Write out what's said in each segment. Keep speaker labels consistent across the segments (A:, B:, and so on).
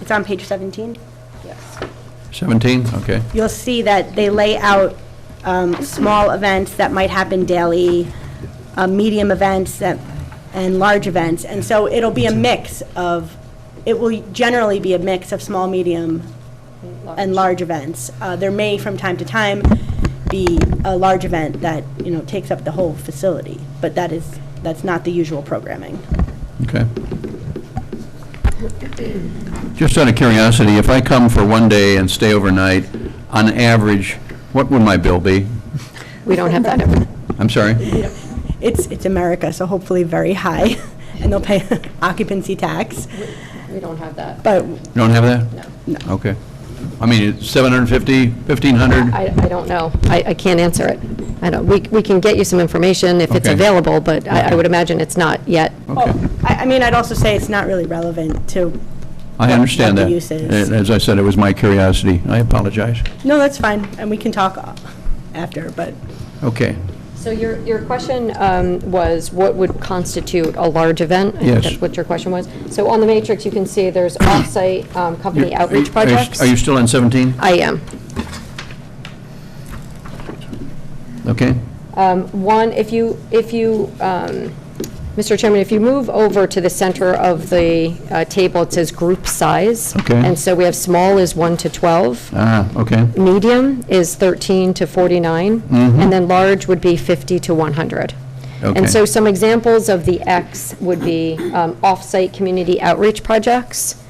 A: It's on page 17? Yes.
B: 17, okay.
A: You'll see that they lay out um, small events that might happen daily, uh, medium events that- and large events. And so it'll be a mix of, it will generally be a mix of small, medium, and large events. Uh, There may, from time to time, be a large event that, you know, takes up the whole facility, but that is, that's not the usual programming.
B: Okay. Just out of curiosity, if I come for one day and stay overnight, on average, what would my bill be?
C: We don't have that ever.
B: I'm sorry?
A: It's, it's America, so hopefully very high, and they'll pay occupancy tax,
C: We don't have that.
A: but
B: You don't have that?
C: No.
B: Okay. I mean, it's 750, 1,500?
C: I, I don't know. I, I can't answer it. I don't, we, we can get you some information if it's
B: Okay.
C: available, but I, I
B: Okay.
C: would imagine it's not yet. oh.
B: Okay.
A: I, I mean, I'd also say it's not really relevant to,
B: I understand
A: what
B: that.
A: the use is.
B: As I said, it was my curiosity. I apologize.
A: no, that's fine, and we can talk after, but
B: Okay.
C: So your, your question um, was, what would constitute a large event? I think
B: Yes.
C: That's what your question was. So on the matrix, you can see there's off-site um, company
B: You're- are you-
C: outreach
B: are you-
C: projects.
B: Are you still on 17?
C: I am.
B: Okay.
C: Um, One, if you, if you, um, Mr. Chairman, if you move over to the center of the uh, table, it says group size.
B: Okay.
C: And so we have small is 1 to 12,
B: Ah, okay.
C: medium is 13 to 49, and then large would be 50 to 100.
B: Okay.
C: And so some examples of the X would be um, off-site community outreach projects.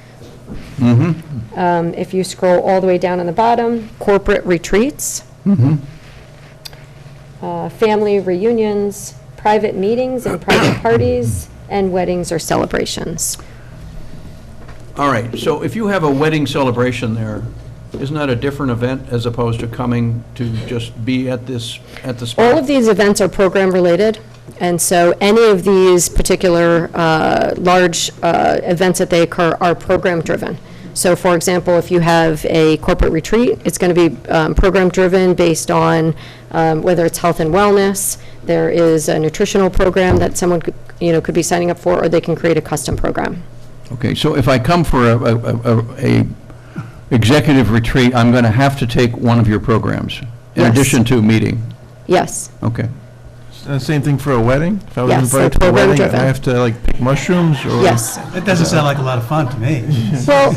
C: Um, If you scroll all the way down on the bottom, corporate retreats uh, family reunions, private meetings and private parties, and weddings or celebrations.
B: All right, so if you have a wedding celebration there, isn't that a different event as opposed to coming to just be at this, at the spot?
C: All of these events are program-related, and so any of these particular uh, large uh, events that they occur are program-driven. So for example, if you have a corporate retreat, it's going to be um, program-driven based on um, whether it's health and wellness, there is a nutritional program that someone, could you know, could be signing up for, or they can create a custom program.
B: Okay, so if I come for a, a- a, a executive retreat, I'm going to have to take one of your programs? In
C: Yes.
B: addition to meeting?
C: Yes,
B: Okay,
D: Uh, Same thing for a wedding? If I was
C: Yes,
D: invited to a
C: they're
D: wedding, I
C: program-driven.
D: have to like pick mushrooms or?
C: yes.
E: That doesn't sound like a lot of fun to me.
C: Well,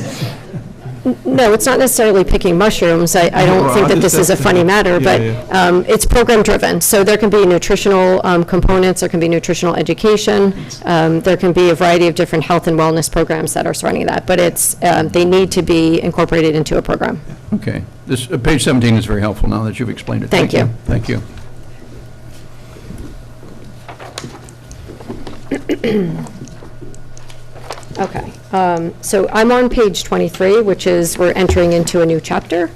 C: n- no, it's not necessarily picking mushrooms. I, I don't
D: Well,
C: think
D: I
C: that this is a
D: just-
C: funny matter,
D: Yeah,
C: but
D: yeah.
C: um, it's program-driven. So there can be nutritional um, components, there can be nutritional education, um, there can be a variety of different health and wellness programs that are surrounding that, but it's, um, they need to be incorporated into a program.
B: okay. This, uh, page 17 is very helpful now that you've explained it.
C: Thank you.
B: Thank you.
C: Okay, um, so I'm on page 23, which is, we're entering into a new chapter.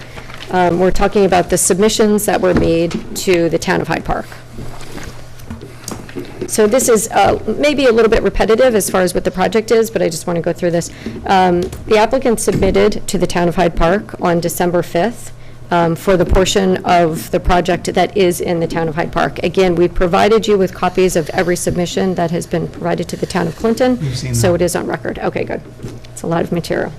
C: Um, We're talking about the submissions that were made to the town of Hyde Park. So this is uh, maybe a little bit repetitive as far as what the project is, but I just want to go through this. Um, The applicant submitted to the town of Hyde Park on December 5th um, for the portion of the project that is in the town of Hyde Park. Again, we provided you with copies of every submission that has been provided to the town of Clinton.
E: You've seen
C: So
E: them.
C: it is on record. Okay, good. It's a lot of material.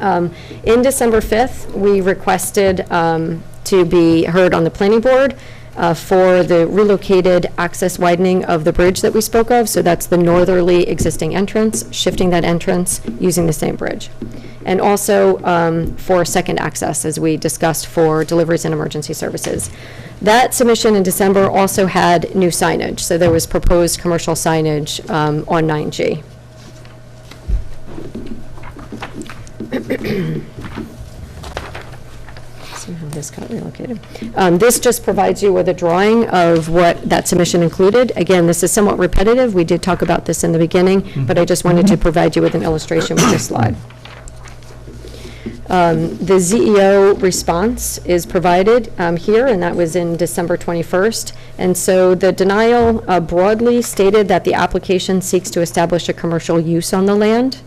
C: Um, In December 5th, we requested um, to be heard on the planning board uh, for the relocated access widening of the bridge that we spoke of. So that's the northerly existing entrance, shifting that entrance using the same bridge. And also um, for second access, as we discussed, for deliveries and emergency services. That submission in December also had new signage. So there was proposed commercial signage um, on 9G. Somehow this got relocated. Um, This just provides you with a drawing of what that submission included. Again, this is somewhat repetitive, we did talk about this in the beginning, but I just wanted to provide you with an illustration with this slide. Um, The ZEO response is provided um, here, and that was in December 21st. And so the denial uh, broadly stated that the application seeks to establish a commercial use on the land.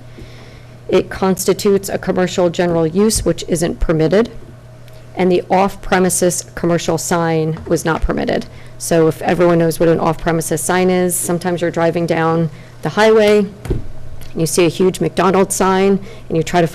C: It constitutes a commercial general use, which isn't permitted and the off-premises commercial sign was not permitted. So if everyone knows what an off-premises sign is, sometimes you're driving down the highway, and you see a huge McDonald's sign, and you try to find